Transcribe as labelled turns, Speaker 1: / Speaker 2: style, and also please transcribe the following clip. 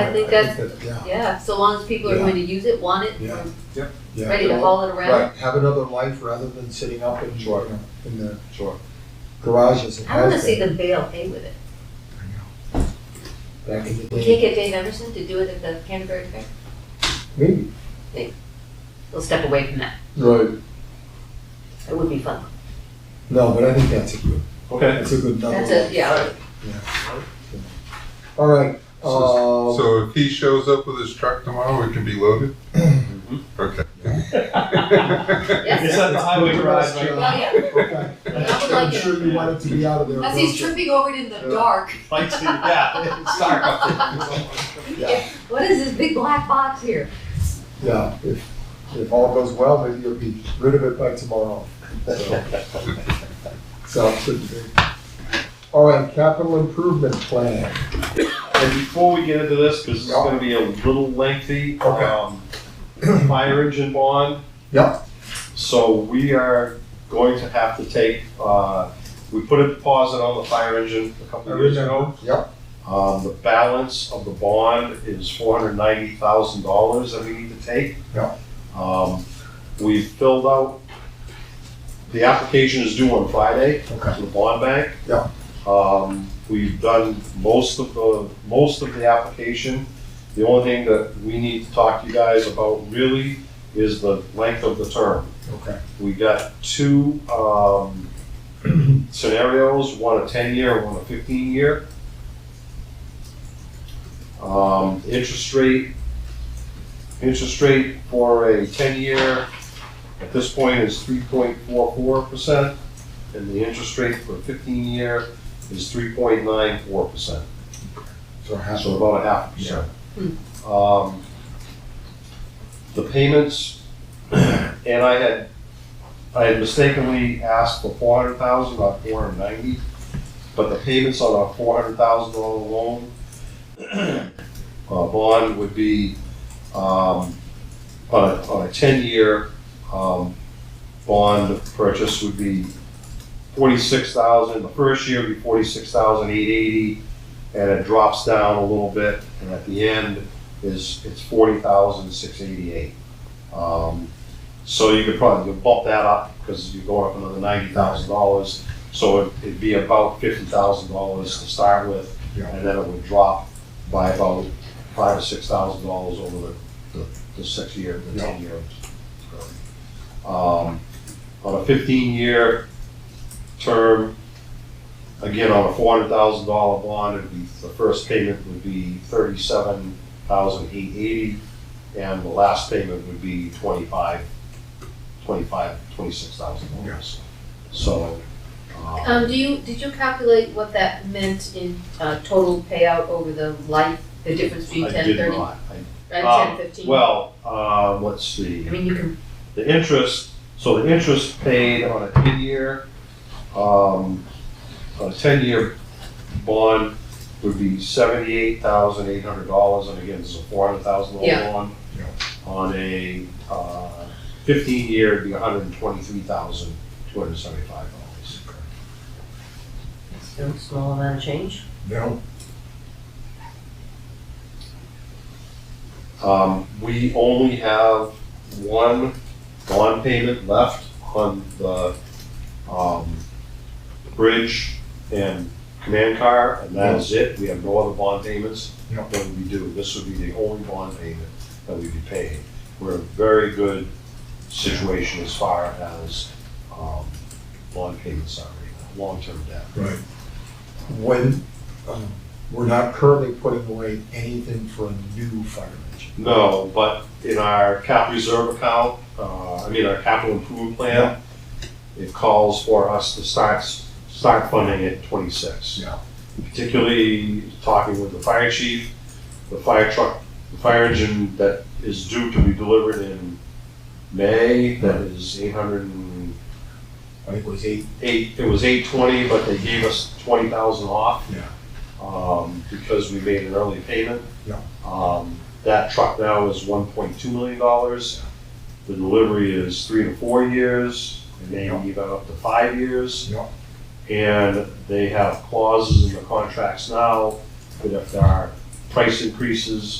Speaker 1: I think that's,
Speaker 2: Yeah,
Speaker 1: yeah, so long as people are
Speaker 2: Yeah.
Speaker 1: going to use it, want it,
Speaker 2: Yeah.
Speaker 1: or
Speaker 2: yeah.
Speaker 1: ready to haul it around.
Speaker 3: Right.
Speaker 2: Have another life rather than sitting up in, you
Speaker 3: Sure.
Speaker 2: know, in the
Speaker 3: Sure.
Speaker 2: garage as it
Speaker 1: I wanna
Speaker 2: has
Speaker 1: see
Speaker 2: been
Speaker 1: them bail hay with it.
Speaker 2: back in the
Speaker 1: We can't
Speaker 2: day.
Speaker 1: get Dave Emerson to do it at the Canterbury Fair.
Speaker 2: Maybe.
Speaker 1: We'll step away from that.
Speaker 2: Right.
Speaker 1: It would be fun.
Speaker 2: No, but I think that's a good,
Speaker 4: Okay.
Speaker 2: that's a good number.
Speaker 1: That's a, yeah,
Speaker 2: All right,
Speaker 3: So,
Speaker 2: uh,
Speaker 3: so if he shows up with his truck tomorrow, it can be loaded? Okay.
Speaker 1: yes.
Speaker 4: It's at the highway garage, right?
Speaker 1: Well, yeah,
Speaker 2: okay.
Speaker 1: I would like
Speaker 2: uh, I'm
Speaker 1: it.
Speaker 2: sure you want it to be out of there.
Speaker 1: As he's tripping over it in the dark.
Speaker 4: Lights to, yeah, it's dark up there.
Speaker 2: Yeah.
Speaker 1: What is this big black box here?
Speaker 2: Yeah, if, if all goes well, maybe you'll be rid of it by tomorrow. So- Sounds good to me. All right, capital improvement plan.
Speaker 4: And before we get into this, because this is
Speaker 2: Yeah.
Speaker 4: gonna be a little lengthy,
Speaker 2: Okay.
Speaker 4: um, fire engine bond.
Speaker 2: Yeah.
Speaker 4: So we are going to have to take, uh, we put a deposit on the fire engine a couple of years ago.
Speaker 2: Yeah.
Speaker 4: Um, the balance of the bond is four hundred ninety thousand dollars that we need to take.
Speaker 2: Yeah.
Speaker 4: Um, we filled out, the application is due on Friday
Speaker 2: Okay.
Speaker 4: to the bond bank.
Speaker 2: Yeah.
Speaker 4: Um, we've done most of the, most of the application. The only thing that we need to talk to you guys about really is the length of the term.
Speaker 2: Okay.
Speaker 4: We got two, um, scenarios, one a ten-year, one a fifteen-year. Um, interest rate, interest rate for a ten-year at this point is three point four four percent, and the interest rate for a fifteen-year is three point nine four percent,
Speaker 2: So half
Speaker 4: so
Speaker 2: of,
Speaker 4: about a half percent. Um, the payments, and I had, I had mistakenly asked for four hundred thousand, not four hundred ninety, but the payments on our four hundred thousand dollar loan, uh, bond would be, um, on a, on a ten-year, um, bond purchase would be forty-six thousand, the first year would be forty-six thousand eight eighty, and it drops down a little bit, and at the end, is, it's forty thousand six eighty-eight. Um, so you could probably, you bump that up, because you're going up another ninety thousand dollars, so it- it'd be about fifty thousand dollars to start with,
Speaker 2: yeah,
Speaker 4: and then it would drop by about five or six thousand dollars over the, the, the six year, the
Speaker 2: Yeah.
Speaker 4: ten years. Um, on a fifteen-year term, again, on a four hundred thousand dollar bond, it'd be, the first payment would be thirty-seven thousand eight eighty, and the last payment would be twenty-five, twenty-five, twenty-six thousand dollars. So, um,
Speaker 1: Um, do you, did you calculate what that meant in, uh, total payout over the life, the difference between
Speaker 4: I
Speaker 1: ten,
Speaker 4: did
Speaker 1: thirty,
Speaker 4: not, I
Speaker 1: and ten,
Speaker 4: Um,
Speaker 1: fifteen?
Speaker 4: Well, uh, let's see,
Speaker 1: I mean, you can,
Speaker 4: the interest, so the interest paid on a ten-year, um, a ten-year bond would be seventy-eight thousand eight hundred dollars, and again, this is a four hundred thousand
Speaker 1: Yeah.
Speaker 4: dollar bond. On a, uh, fifteen-year, it'd be hundred and twenty-three thousand two hundred seventy-five dollars.
Speaker 1: it's a small amount of change.
Speaker 2: no,
Speaker 4: Um, we only have one bond payment left on the, um, bridge and command car, and that is it. We have no other bond payments
Speaker 2: No.
Speaker 4: that we do. This would be the only bond payment that we'd be paying. We're in a very good situation as far as, um, bond payments are right now, long-term debt.
Speaker 2: right. When, um, we're not currently putting away anything for a new fire engine.
Speaker 4: No, but in our cap reserve account, uh, I mean, our capital improvement plan, it calls for us to start, start funding at twenty-six.
Speaker 2: Yeah.
Speaker 4: Particularly talking with the fire chief, the fire truck, the fire engine that is due to be delivered in May, that is eight hundred and
Speaker 2: I think it was eight,
Speaker 4: eight, it was eight twenty, but they gave us twenty thousand off.
Speaker 2: Yeah.
Speaker 4: Um, because we made an early payment.
Speaker 2: Yeah.
Speaker 4: Um, that truck now is one point two million dollars. The delivery is three to four years, and they
Speaker 2: Yeah.
Speaker 4: give out up to five years.
Speaker 2: Yeah.
Speaker 4: And they have clauses in the contracts now that if there are price increases,